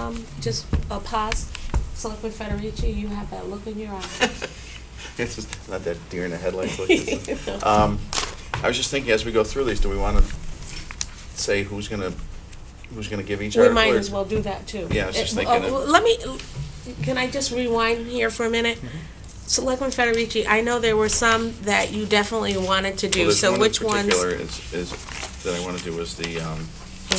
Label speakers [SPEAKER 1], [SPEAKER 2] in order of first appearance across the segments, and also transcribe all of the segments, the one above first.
[SPEAKER 1] um, just a pause? Selectman Federici, you have that look in your eye.
[SPEAKER 2] It's just not that deer in the headlights look. is it? Um, I was just thinking, as we go through these, do we wanna say who's gonna, who's gonna give each
[SPEAKER 1] We
[SPEAKER 2] article?
[SPEAKER 1] might
[SPEAKER 2] or-
[SPEAKER 1] as well do that too.
[SPEAKER 2] Yeah, I was just
[SPEAKER 1] Uh,
[SPEAKER 2] thinking of-
[SPEAKER 1] oh, Let me, can I just rewind here for a minute?
[SPEAKER 2] Mm-hmm.
[SPEAKER 1] Selectman Federici, I know there were some that you definitely wanted to
[SPEAKER 2] Well,
[SPEAKER 1] do,
[SPEAKER 2] there's
[SPEAKER 1] so
[SPEAKER 2] one in
[SPEAKER 1] which ones,
[SPEAKER 2] particular is, is, that I wanna do is the, um,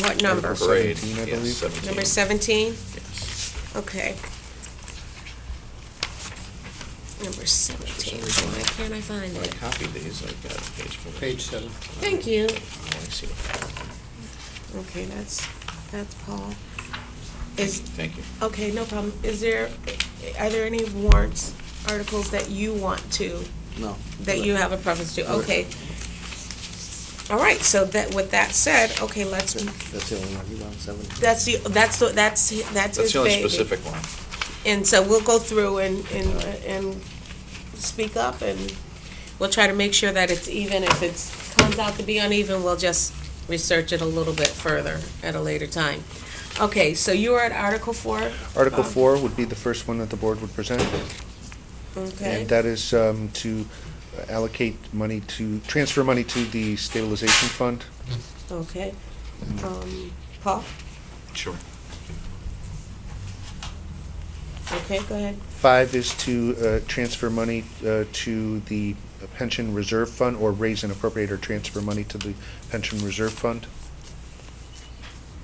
[SPEAKER 1] what number?
[SPEAKER 3] Article
[SPEAKER 2] parade.
[SPEAKER 3] 17, I
[SPEAKER 2] Yes,
[SPEAKER 3] believe.
[SPEAKER 2] seventeen.
[SPEAKER 1] Number seventeen?
[SPEAKER 2] Yes.
[SPEAKER 1] Okay. Number
[SPEAKER 2] For some
[SPEAKER 1] seventeen,
[SPEAKER 2] reason,
[SPEAKER 1] why can't I find
[SPEAKER 2] When I
[SPEAKER 1] it?
[SPEAKER 2] copied these, I've got page four.
[SPEAKER 3] Page seven.
[SPEAKER 1] Thank you.
[SPEAKER 2] Oh, I see what happened.
[SPEAKER 1] Okay, that's, that's Paul. Is,
[SPEAKER 2] Thank you.
[SPEAKER 1] okay, no problem. Is there, are there any warrants, articles that you want to
[SPEAKER 3] No.
[SPEAKER 1] that you have a preference to, okay. All right, so that, with that said, okay, let's,
[SPEAKER 3] That's the only one, you want seven?
[SPEAKER 1] that's the, that's, the that's, that's
[SPEAKER 2] That's
[SPEAKER 1] his
[SPEAKER 2] the only
[SPEAKER 1] baby.
[SPEAKER 2] specific one.
[SPEAKER 1] And so we'll go through and, and, and speak up, and we'll try to make sure that it's even, if it's, comes out to be uneven, we'll just research it a little bit further at a later time. Okay, so you are at Article Four, Um,
[SPEAKER 3] Article four would be the first one that the board would present,
[SPEAKER 1] okay?
[SPEAKER 3] and that is um, to allocate money to, transfer money to the stabilization fund.
[SPEAKER 1] Okay, um, Paul,
[SPEAKER 2] Sure.
[SPEAKER 1] okay, go ahead.
[SPEAKER 3] Five is to uh, transfer money uh, to the pension reserve fund, or raise and appropriate or transfer money to the pension reserve fund.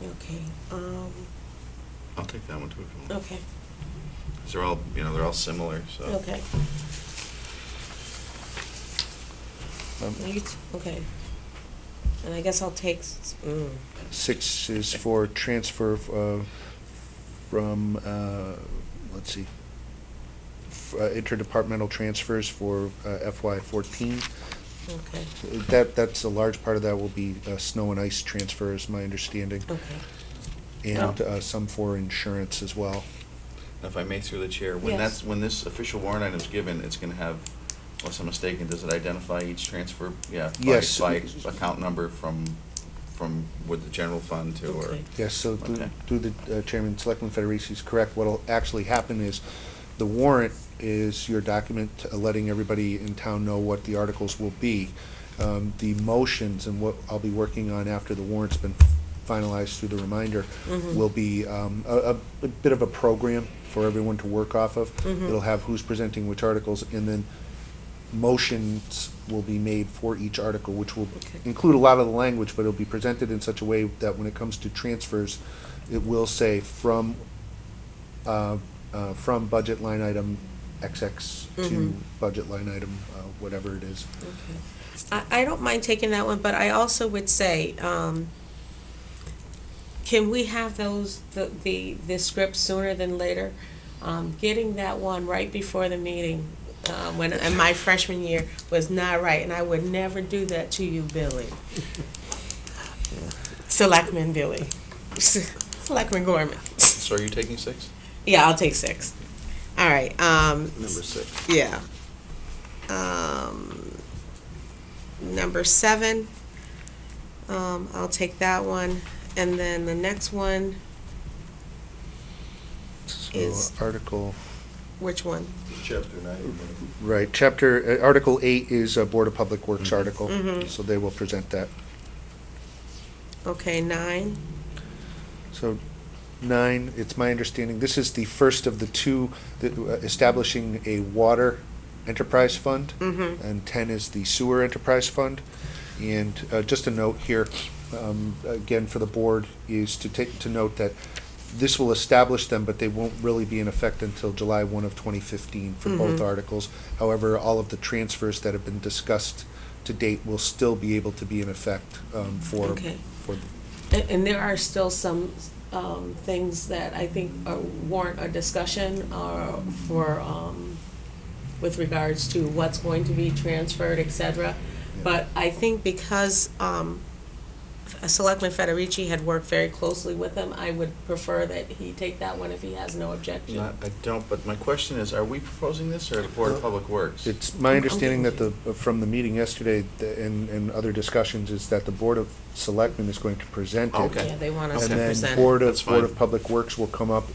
[SPEAKER 1] Okay, um,
[SPEAKER 2] I'll take that one too. if you want.
[SPEAKER 1] okay,
[SPEAKER 2] 'Cause they're all, you know, they're all similar, so.
[SPEAKER 1] Oh. okay.
[SPEAKER 3] Um,
[SPEAKER 1] You t- Okay. And I guess I'll take, s- mm,
[SPEAKER 3] Six is for transfer uh, from, uh, let's see, f- uh, interdepartmental transfers for FY fourteen.
[SPEAKER 1] okay,
[SPEAKER 3] That, that's a large part of that will be uh, snow and ice transfers, my understanding,
[SPEAKER 1] okay.
[SPEAKER 3] and uh, some for insurance as well.
[SPEAKER 2] If I may through the chair, when
[SPEAKER 1] Yes.
[SPEAKER 2] that's, when this official warrant item is given, it's gonna have, unless I'm mistaken, does it identify each transfer? Yeah. by-
[SPEAKER 3] Yes.
[SPEAKER 2] By account number from, from, with the general fund to, or,
[SPEAKER 1] Okay.
[SPEAKER 3] Yes, so through
[SPEAKER 2] Okay.
[SPEAKER 3] through the uh, Chairman, Selectman Federici is correct. What'll actually happen is, the warrant is your document uh, letting everybody in town know what the articles will be. Um, The motions and what I'll be working on after the warrant's been finalized through the reminder will be um, a a- a bit of a program for everyone to work off of. It'll have who's presenting which articles, and then motions will be made for each article, which will
[SPEAKER 1] Okay.
[SPEAKER 3] include a lot of the language, but it'll be presented in such a way that when it comes to transfers, it will say from, uh, uh, from budget line item XX to
[SPEAKER 1] Mhm.
[SPEAKER 3] budget line item, uh, whatever it is.
[SPEAKER 1] Okay. I, I don't mind taking that one, but I also would say, um, can we have those, the, the, the script sooner than later? Um, getting that one right before the meeting, uh, when, in my freshman year was not right, and I would never do that to you, Billy. Selectman Billy. Selectman Gorman.
[SPEAKER 2] so are you taking six?
[SPEAKER 1] Yeah, I'll take six. All right, um,
[SPEAKER 2] Number six.
[SPEAKER 1] yeah. Um, number seven, um, I'll take that one, and then the next one,
[SPEAKER 3] So uh,
[SPEAKER 1] Is-
[SPEAKER 3] Article,
[SPEAKER 1] which one?
[SPEAKER 4] Chapter nine.
[SPEAKER 3] right, chapter, uh, Article eight is a Board of Public Works article,
[SPEAKER 1] Mhm.
[SPEAKER 3] so they will present that.
[SPEAKER 1] Okay, nine,
[SPEAKER 3] So nine, it's my understanding, this is the first of the two, that, uh, establishing a water enterprise fund.
[SPEAKER 1] mm-hmm,
[SPEAKER 3] and 10 is the sewer enterprise fund. And uh, just a note here, um, again, for the board, is to take, to note that this will establish them, but they won't really be in effect until July 1 of 2015 for both
[SPEAKER 1] Mhm.
[SPEAKER 3] articles. However, all of the transfers that have been discussed to date will still be able to be in effect um, for,
[SPEAKER 1] okay.
[SPEAKER 3] for
[SPEAKER 1] And, and there are still some, um, things that I think are- warrant a discussion, uh, for, um, with regards to what's going to be transferred, et cetera. But I think because, um, Selectman Federici had worked very closely with him, I would prefer that he take that one if he has no objection.
[SPEAKER 2] Not, I don't, but my question is, are we proposing this or the Board of Public Works?
[SPEAKER 3] It's my understanding that the, from the meeting yesterday th- and, and other discussions is that the Board of Selectmen is going to present it.
[SPEAKER 2] Okay.
[SPEAKER 1] Yeah, they want us
[SPEAKER 3] And
[SPEAKER 1] to
[SPEAKER 3] then
[SPEAKER 1] present. it.
[SPEAKER 3] Board
[SPEAKER 2] That's
[SPEAKER 3] of,
[SPEAKER 2] fine.
[SPEAKER 3] Board of Public Works will come up